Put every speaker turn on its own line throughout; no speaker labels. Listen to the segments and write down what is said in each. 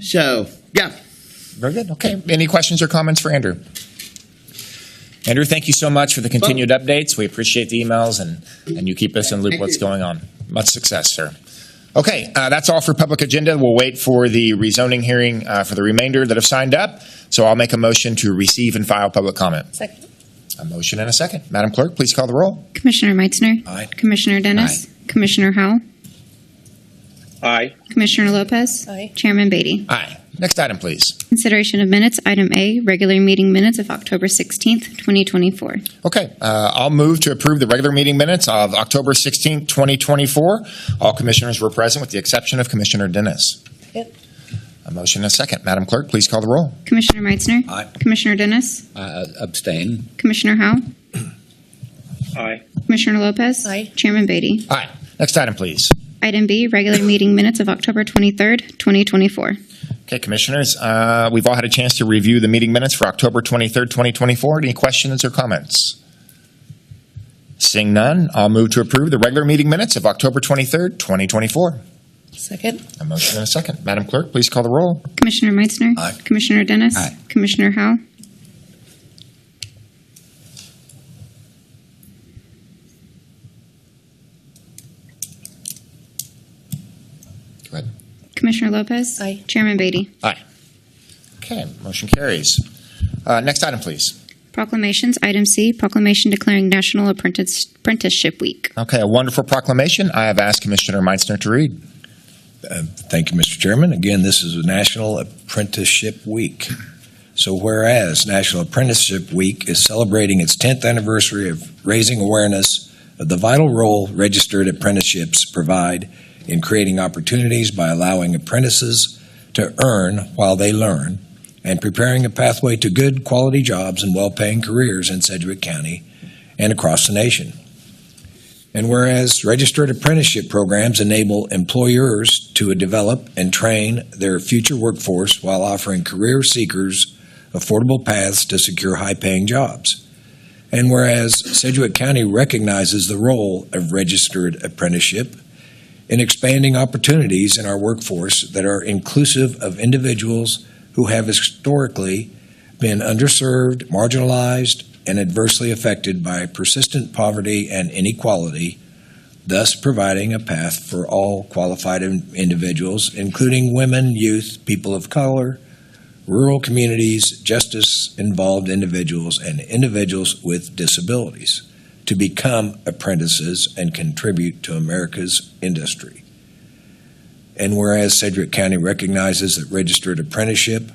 So, yeah.
Very good. Okay. Any questions or comments for Andrew? Andrew, thank you so much for the continued updates. We appreciate the emails and, and you keep us in loop
Thank
what's
you.
going on. Much success, sir. Okay, uh, that's all for public agenda. We'll wait for the rezoning hearing uh, for the remainder that have signed up. So I'll make a motion to receive and file public comment.
Second.
A motion and a second. Madam Clerk, please call the roll.
Commissioner Meitzner.
Aye.
Commissioner Dennis. Commissioner Howell.
Aye.
Commissioner Lopez.
Aye.
Chairman Beatty.
Aye. Next item, please.
Consideration of minutes, item A, regular meeting minutes of October 16th, 2024.
Okay, uh, I'll move to approve the regular meeting minutes of October 16th, 2024. All commissioners were present with the exception of Commissioner Dennis.
Yep.
A motion and a second. Madam Clerk, please call the roll.
Commissioner Meitzner.
Aye.
Commissioner Dennis.
Uh, Abstain.
Commissioner Howell.
Aye.
Commissioner Lopez.
Aye.
Chairman Beatty.
Aye. Next item, please.
Item B, regular meeting minutes of October 23rd, 2024.
Okay, commissioners, uh, we've all had a chance to review the meeting minutes for October 23rd, 2024. Any questions or comments? Seeing none, I'll move to approve the regular meeting minutes of October 23rd, 2024.
Second.
A motion and a second. Madam Clerk, please call the roll.
Commissioner Meitzner.
Aye.
Commissioner Dennis.
Aye.
Commissioner Howell.
Go ahead.
Commissioner Lopez.
Aye.
Chairman Beatty.
Okay, motion carries. Uh, Next item, please.
Proclamations, item C, proclamation declaring National Apprentice- Apprenticeship Week.
Okay, a wonderful proclamation. I have asked Commissioner Meitzner to read.
Thank you, Mr. Chairman. Again, this is National Apprenticeship Week. So whereas National Apprenticeship Week is celebrating its 10th anniversary of raising awareness of the vital role registered apprenticeships provide in creating opportunities by allowing apprentices to earn while they learn and preparing a pathway to good, quality jobs and well-paying careers in Sedgwick County and across the nation. And whereas registered apprenticeship programs enable employers to develop and train their future workforce while offering career seekers affordable paths to secure high paying jobs. And whereas Sedgwick County recognizes the role of registered apprenticeship in expanding opportunities in our workforce that are inclusive of individuals who have historically been underserved, marginalized, and adversely affected by persistent poverty and inequality, thus providing a path for all qualified in- individuals, including women, youth, people of color, rural communities, justice involved individuals, and individuals with disabilities to become apprentices and contribute to America's industry. And whereas Sedgwick County recognizes that registered apprenticeship,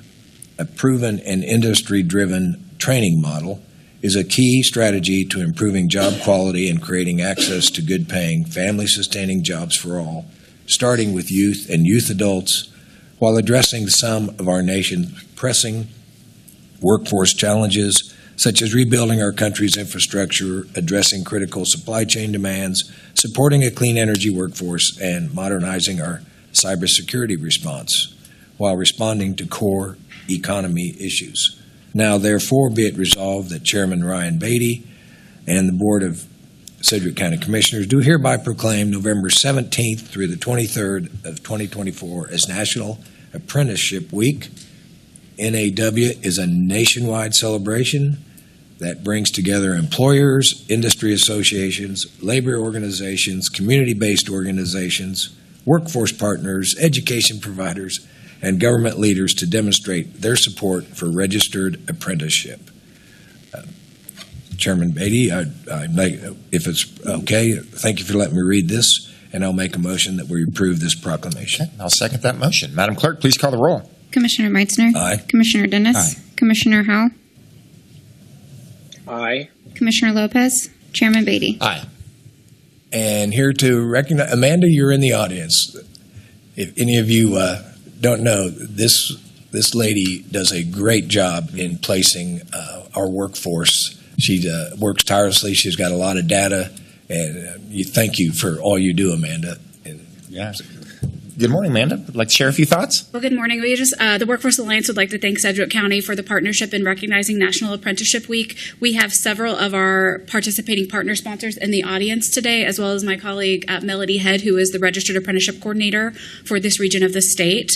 a proven and industry driven training model, is a key strategy to improving job quality and creating access to good paying, family sustaining jobs for all, starting with youth and youth adults, while addressing some of our nation's pressing workforce challenges, such as rebuilding our country's infrastructure, addressing critical supply chain demands, supporting a clean energy workforce, and modernizing our cybersecurity response while responding to core economy issues. Now therefore be it resolved that Chairman Ryan Beatty and the Board of Sedgwick County Commissioners do hereby proclaim November 17th through the 23rd of 2024 as National Apprenticeship Week. NAW is a nationwide celebration that brings together employers, industry associations, labor organizations, community-based organizations, workforce partners, education providers, and government leaders to demonstrate their support for registered apprenticeship. Uh, Chairman Beatty, I, I make, if it's okay, thank you for letting me read this, and I'll make a motion that we approve this proclamation.
Okay, I'll second that motion. Madam Clerk, please call the roll.
Commissioner Meitzner.
Aye.
Commissioner Dennis. Commissioner Howell.
Aye.
Commissioner Lopez. Chairman Beatty.
And here to recognize, Amanda, you're in the audience. If any of you uh, don't know, this, this lady does a great job in placing uh, our workforce. She uh, works tirelessly, she's got a lot of data, and uh, you, thank you for all you do, Amanda.
Yeah. Good morning, Amanda. Would like to share a few thoughts?
Well, good morning. We just, uh, the Workforce Alliance would like to thank Sedgwick County for the partnership in recognizing National Apprenticeship Week. We have several of our participating partner sponsors in the audience today, as well as my colleague uh, Melody Head, who is the Registered Apprenticeship Coordinator for this region of the state.